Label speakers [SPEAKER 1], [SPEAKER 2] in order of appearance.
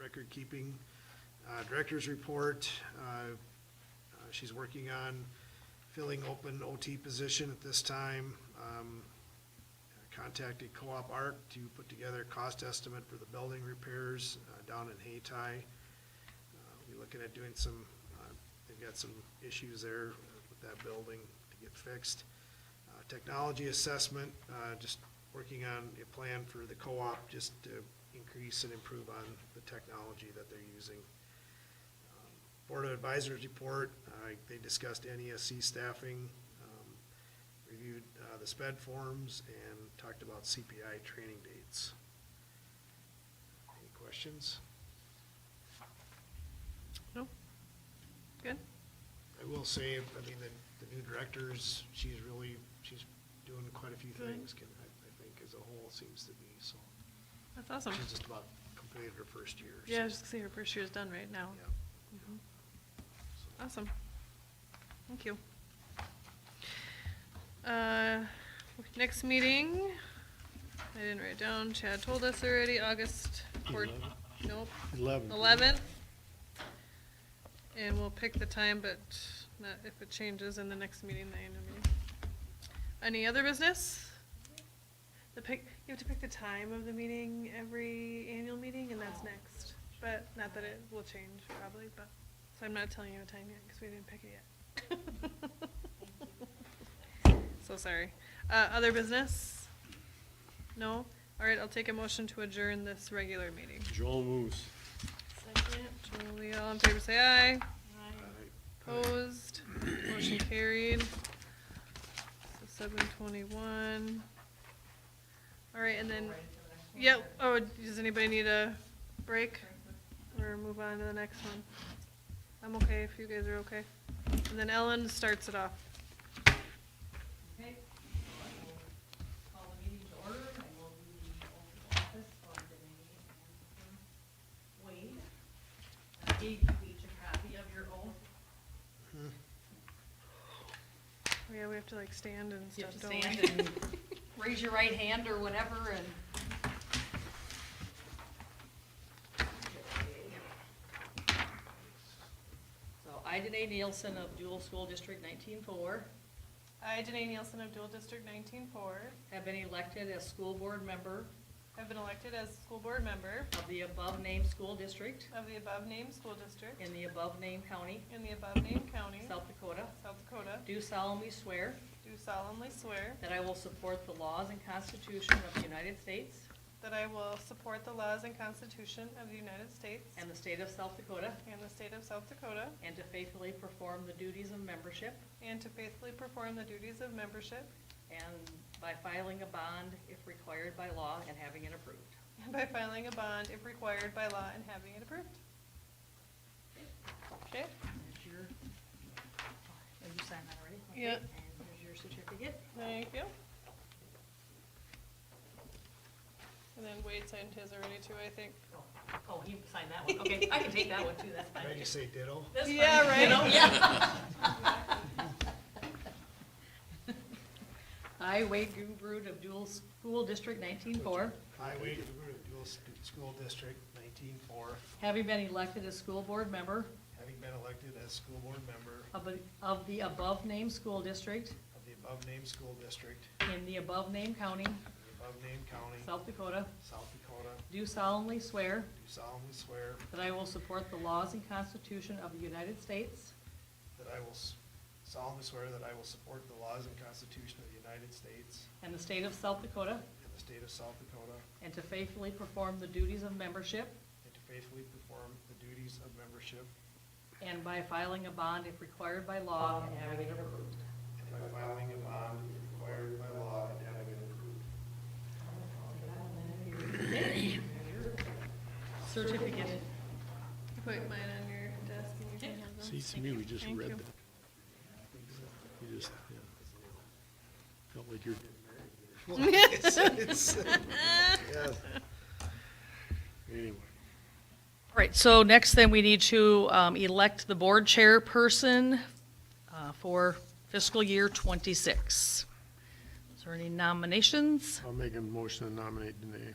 [SPEAKER 1] record keeping. Uh, Director's report, uh, uh, she's working on filling open OT position at this time. Um, Contacted Co-op Art to put together a cost estimate for the building repairs uh, down in Hayti. Uh, We're looking at doing some, uh, they've got some issues there with that building to get fixed. Uh, Technology assessment, uh, just working on a plan for the co-op, just to increase and improve on the technology that they're using. Um, Board of Advisors report, I- they discussed NESC staffing, um, reviewed uh, the sped forms, and talked about CPI training dates. Any questions?
[SPEAKER 2] No? Good?
[SPEAKER 1] I will say, I mean, the, the new directors, she's really, she's doing quite a few
[SPEAKER 2] Good.
[SPEAKER 1] things, can- I, I think, as a whole seems to be, so.
[SPEAKER 2] That's awesome.
[SPEAKER 1] She's just about completed her first year. so,
[SPEAKER 2] Yeah, I was just see her first year's done right now.
[SPEAKER 1] Yeah.
[SPEAKER 2] Mhm.
[SPEAKER 1] so.
[SPEAKER 2] Awesome. Thank you. Uh, Next meeting, I didn't write down, Chad told us already, August fourth, nope,
[SPEAKER 3] Eleven.
[SPEAKER 2] eleventh. And we'll pick the time, but not if it changes in the next meeting, then I mean. Any other business? The pick, you have to pick the time of the meeting every annual meeting, and that's next. But not that it will change probably, but, so I'm not telling you a time yet, because we didn't pick it yet. So sorry. Uh, other business? No? All right, I'll take a motion to adjourn this regular meeting.
[SPEAKER 3] Joel moves.
[SPEAKER 2] Second. Julie, all in favor, say aye.
[SPEAKER 1] Aye.
[SPEAKER 2] Opposed, motion carried. So seven twenty-one. All right, and then, yeah, oh, does anybody need a break? Or move on to the next one? I'm okay if you guys are okay. And then Ellen starts it off.
[SPEAKER 4] Okay, I will call the meeting to order, I will do the oath of office for Renee and Wade. I gave you each a copy of your oath.
[SPEAKER 2] Oh, yeah, we have to like stand and
[SPEAKER 4] You
[SPEAKER 2] stuff,
[SPEAKER 4] have to
[SPEAKER 2] don't we?
[SPEAKER 4] stand and raise your right hand or whatever and. So I, Danae Nielsen of Dual School District nineteen-four,
[SPEAKER 2] I, Danae Nielsen of dual district nineteen-four,
[SPEAKER 4] have been elected as school board member
[SPEAKER 2] have been elected as school board member
[SPEAKER 4] of the above-named school district
[SPEAKER 2] of the above-named school district
[SPEAKER 4] in the above-named county,
[SPEAKER 2] in the above-named county,
[SPEAKER 4] South Dakota,
[SPEAKER 2] South Dakota,
[SPEAKER 4] do solemnly swear
[SPEAKER 2] do solemnly swear
[SPEAKER 4] that I will support the laws and Constitution of the United States
[SPEAKER 2] that I will support the laws and Constitution of the United States
[SPEAKER 4] and the state of South Dakota,
[SPEAKER 2] and the state of South Dakota,
[SPEAKER 4] and to faithfully perform the duties of membership,
[SPEAKER 2] and to faithfully perform the duties of membership
[SPEAKER 4] and by filing a bond if required by law and having it approved.
[SPEAKER 2] and by filing a bond if required by law and having it approved. Okay?
[SPEAKER 4] There's your, have you signed that already? Okay,
[SPEAKER 2] Yeah.
[SPEAKER 4] And here's your certificate.
[SPEAKER 2] Thank you. And then Wade signed his already too, I think.
[SPEAKER 4] Oh, Oh, he signed that one, okay, I can take that one too, that's fine.
[SPEAKER 1] Can I just say ditto?
[SPEAKER 4] That's fine.
[SPEAKER 2] Yeah, right.
[SPEAKER 4] You know, yeah. I, Wade Gubrud of Dual School District nineteen-four,
[SPEAKER 1] Highway Dual S- School District nineteen-four,
[SPEAKER 4] having been elected as school board member
[SPEAKER 1] having been elected as school board member
[SPEAKER 4] of, the- of the above-named school district
[SPEAKER 1] of the above-named school district
[SPEAKER 4] in the above-named county,
[SPEAKER 1] in the above-named county,
[SPEAKER 4] South Dakota,
[SPEAKER 1] South Dakota,
[SPEAKER 4] do solemnly swear
[SPEAKER 1] do solemnly swear
[SPEAKER 4] that I will support the laws and constitution of the United States
[SPEAKER 1] that I will s- solemnly swear that I will support the laws and Constitution of the United States
[SPEAKER 4] and the state of South Dakota,
[SPEAKER 1] and the state of South Dakota,
[SPEAKER 4] and to faithfully perform the duties of membership,
[SPEAKER 1] and to faithfully perform the duties of membership,
[SPEAKER 4] and by filing a bond if required by law and having it approved.
[SPEAKER 1] and by filing a bond required by law and having it approved.
[SPEAKER 4] Certificate.
[SPEAKER 2] Put mine on your desk and you can have
[SPEAKER 3] See,
[SPEAKER 2] them.
[SPEAKER 3] to me, we just
[SPEAKER 2] Thank
[SPEAKER 3] read
[SPEAKER 2] you.
[SPEAKER 3] that. You just, yeah. Felt like you're,
[SPEAKER 1] It's- it's- Yes.
[SPEAKER 3] anyway.
[SPEAKER 4] All right, so next then we need to um, elect the board chairperson uh, for fiscal year '26. Is there any nominations?
[SPEAKER 3] I'll make a motion to nominate Danae.